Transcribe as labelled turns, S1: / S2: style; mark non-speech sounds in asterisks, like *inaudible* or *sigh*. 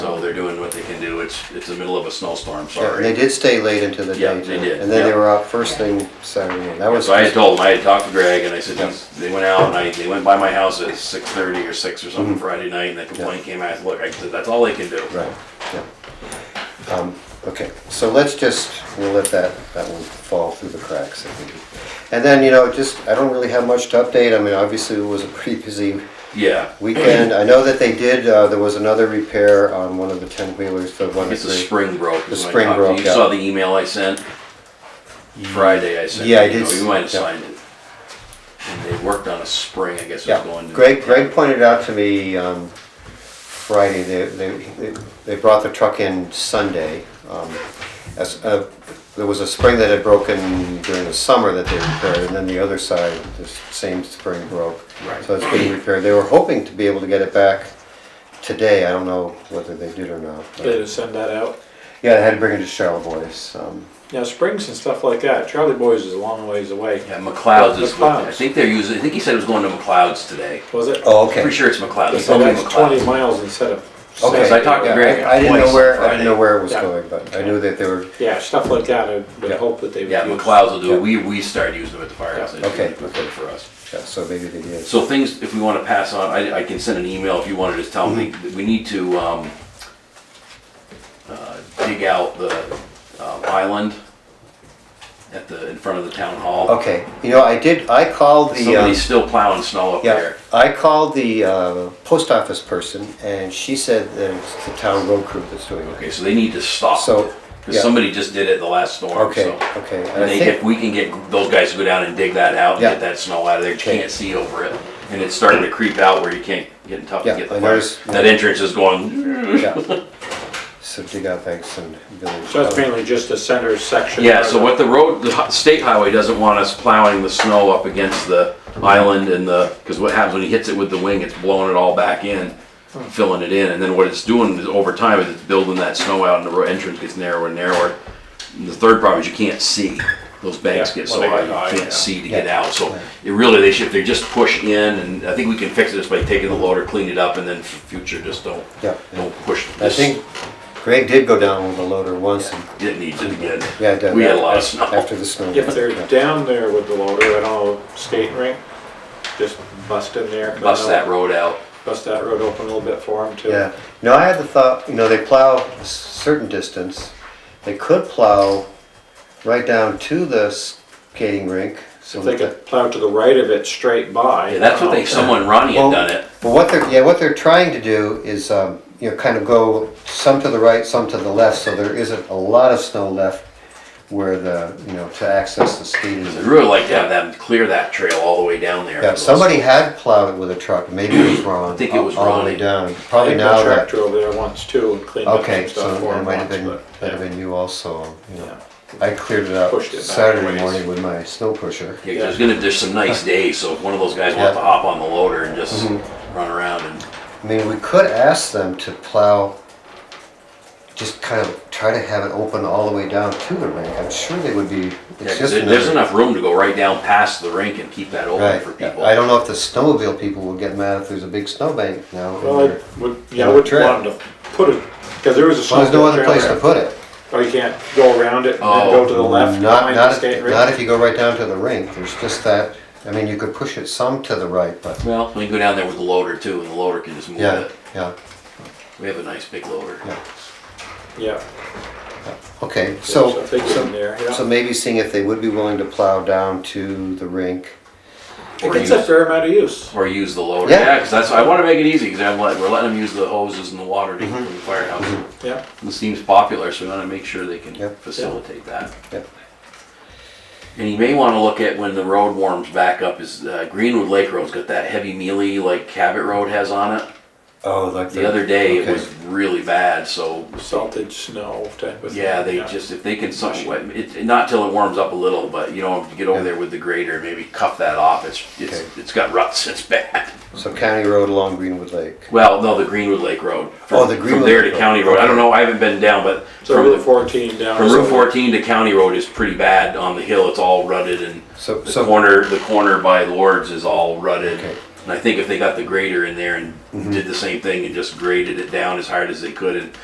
S1: do. It's, it's the middle of a snowstorm,
S2: Yeah,
S1: sorry.
S2: They did stay late into the
S1: Yeah,
S2: day.
S1: they
S2: too.
S1: did,
S2: And then they
S1: yeah.
S2: were out first thing Saturday. morning. That was,
S1: So I had told them, I had talked to Greg and I said, they went out and I, they went by my house at six thirty or six or something Friday night and the complaint came out, look, I said, that's all they can do.
S2: Mm-hmm. right, yeah. Um, Okay, so let's just, we'll let that, that one fall through the cracks. I think. And then, you know, just, I don't really have much to update. I mean, obviously it was a pretty busy
S1: Yeah, *laughs*
S2: weekend. I know that they did, uh, there was another repair on one of the ten wheelers, the one.
S1: it's
S2: that
S1: the
S2: they-
S1: spring broke.
S2: The
S1: is when I
S2: spring
S1: talked to
S2: broke,
S1: You
S2: yeah.
S1: saw the email I sent Friday, I sent.
S2: Yeah, I
S1: you
S2: did
S1: know,
S2: s-
S1: You might have
S2: yeah.
S1: signed it. And they worked on a spring, I guess it was
S2: Yeah,
S1: going to.
S2: Greg, Greg pointed out to me um, Friday, they, they, they brought the truck in Sunday. um, As, uh, there was a spring that had broken during the summer that they repaired, and then the other side, the same spring broke.
S1: Right.
S2: So it's being repaired. They were hoping to be able to get it back today. I don't know whether they did or not. but-
S3: They had to send that out.
S2: Yeah, they had to bring it to Charlotte Boys. um,
S3: Now, springs and stuff like that, Charlie Boys is a long ways away.
S1: Yeah, McLeod's is, what- I
S3: McLeod's.
S1: think they're using, I think he said it was going to McLeod's today.
S3: Was it?
S2: Oh, okay.
S1: Pretty sure it's McLeod's. He
S3: So
S1: told me
S3: that's twenty
S1: McLeod's.
S3: miles instead of.
S2: Okay.
S1: Because I talked to
S2: Yeah,
S1: Greg
S2: I I didn't
S1: twice
S2: know
S1: on
S2: where, I didn't know
S1: Friday.
S2: where it was
S3: Yeah.
S2: going, but I knew that they were,
S3: Yeah, stuff like that, I would
S2: Yeah.
S3: hope that they would.
S1: Yeah,
S3: use.
S1: McLeod's will do
S2: Yeah.
S1: it. We, we started using them at the firehouse. They
S2: Okay,
S1: did
S2: okay.
S1: For us.
S2: yeah, so maybe they did.
S1: So things, if we want to pass on, I, I can send an email if you want to just tell me,
S2: Mm-hmm.
S1: we need to, um, uh, dig out the um, island at the, in front of the town hall.
S2: Okay, you know, I did, I called the, um,
S1: Somebody's still plowing snow up
S2: yeah,
S1: there.
S2: I called the uh, post office person, and she said that it's the town road crew that's doing it.
S1: Okay, so they need to stop.
S2: So, yeah.
S1: Because somebody just did it the last storm,
S2: Okay,
S1: so.
S2: okay, and
S1: And
S2: I
S1: they, if
S2: think,
S1: we can get those guys to go down and dig that out and
S2: Yeah.
S1: get that snow out of there, you
S2: Okay.
S1: can't see over it. And it's starting to creep out where you can't, getting tough to
S2: Yeah,
S1: get
S2: I
S1: the fire.
S2: noticed-
S1: That entrance is going, *laughs*
S2: yeah. So dig out banks and village.
S3: So that's mainly just the center section.
S1: yeah,
S3: where
S1: so
S3: the-
S1: what the road, the hi- state highway doesn't want us plowing the snow up against the island and the, because what happens when he hits it with the wing, it's blowing it all back in,
S3: Hmm.
S1: filling it in, and then what it's doing is over time is it's building that snow out and the road entrance gets narrower and narrower. And the third problem is you can't see. Those banks
S3: Yeah,
S1: get
S3: well,
S1: so
S3: they
S1: high,
S3: get high,
S1: you
S3: yeah.
S1: can't see to get
S2: Yeah.
S1: out, so it really, they should, they just push in, and I think we can fix it just by taking the loader, clean it up, and then f- future, just don't,
S2: Yeah.
S1: don't push.
S2: I
S1: Oh, this.
S2: think Greg did go down with the loader once, and,
S1: It needs it again.
S2: yeah, down
S1: We had a
S2: there
S1: lot of snow.
S2: After the snow.
S3: If
S2: Yeah.
S3: they're down there with the loader at all, skating rink, just bust in there.
S1: Bust that road out.
S3: Bust that road open a little bit for them too.
S2: Yeah, no, I had the thought, you know, they plow a certain distance, they could plow right down to the skating rink. so
S3: If they
S2: that the-
S3: could plow to the right of it straight by.
S1: Yeah, that's what they, someone, Ronnie had
S2: Oh, Well,
S1: done it.
S2: But what they're, yeah, what they're trying to do is, um, you know, kind of go some to the right, some to the left, so there isn't a lot of snow left where the, you know, to access the skating.
S1: I'd really like to have them clear that trail all the way down there.
S2: Yeah, somebody had plowed it with a truck, maybe it was Ron.
S1: I think it was
S2: all- All the way
S1: Ronnie.
S2: down,
S3: I
S2: probably
S3: think
S2: now
S3: my
S2: that,
S3: tractor over there once too and cleaned up
S2: okay,
S3: some
S2: so
S3: stuff for
S2: it
S3: them
S2: might have
S3: once,
S2: been,
S3: but.
S2: that'd have been you also, you know.
S3: yeah.
S2: I cleared it out
S3: Pushed it back
S2: Saturday
S3: ways.
S2: morning with my snow pusher.
S1: Yeah, 'cause there's gonna, there's some nice days, so if one of those guys wants to
S2: Yeah. Mm-hmm.
S1: hop on the loader and just run around and,
S2: I mean, we could ask them to plow, just kind of try to have it open all the way down to the rink. I'm sure they would be.
S1: yeah,
S2: it's
S1: 'cause
S2: just
S1: there- there's
S2: another-
S1: enough room to go right down past the rink and keep that open
S2: Right.
S1: for
S2: yeah.
S1: people.
S2: I don't know if the snowmobile people will get mad if there's a big snowbank now. in
S3: Well,
S2: there.
S3: I would, yeah, I
S2: Yeah,
S3: would
S2: trail.
S3: want to put it, because there is a
S2: Well,
S3: snow
S2: There's no
S3: trail
S2: other place to
S3: there.
S2: put it.
S3: Oh, you can't go around it and then
S1: Oh,
S3: go to the left
S2: Not,
S3: behind the
S2: not, if-
S3: skate
S2: not
S3: rink?
S2: if you go right down to the rink. There's just that, I mean, you could push it some to the right, but,
S1: Well, we can go down there with the loader too, and the loader can just move
S2: yeah,
S1: it.
S2: yeah,
S1: We have a nice big loader.
S2: yeah.
S3: Yeah.
S2: Okay, so.
S3: if They get in there,
S2: So
S3: yeah.
S2: maybe seeing if they would be willing to plow down to the rink.
S1: Or
S3: It gets
S1: use,
S3: a fair amount of use.
S1: or use the loader,
S2: Yeah.
S1: yeah, cause that's, I wanna make it easy, cause I'm letting, we're letting them use the hoses and the water
S2: Mm-hmm.
S1: to from the firehouse.
S3: Yeah,
S1: This seems popular, so we wanna make sure they can
S2: Yep.
S1: facilitate that.
S2: Yep.
S1: And you may want to look at when the road warms back up is uh, Greenwood Lake Road's got that heavy mealy like Cabot Road has on it.
S2: Oh, like
S1: The other day it
S2: okay.
S1: was really bad, so
S3: salted snow type of.
S1: yeah, they
S3: thing,
S1: just if they can somewhat it, not till it warms up a little, but you know, if you get over there with the grater, maybe cuff that off. It's it's
S2: Okay.
S1: it's got ruts. *laughs* It's bad.
S2: So County Road along Greenwood Lake.
S1: Well, no, the Greenwood Lake Road. From,
S2: Oh, the
S1: from
S2: Greenwood
S1: there to
S2: Lake Road.
S1: County Road. I don't know. I haven't been down, but
S3: So
S1: from
S3: Route
S1: the,
S3: fourteen down.
S1: from
S3: is
S1: Route
S3: over.
S1: 14 to County Road is pretty bad on the hill. It's all rutted and
S2: So,
S1: The
S2: so,
S1: corner, the corner by Lords is all rutted.
S2: Okay. Mm-hmm.
S1: And I think if they got the grader in there and did the same thing and just graded it down as hard as they could and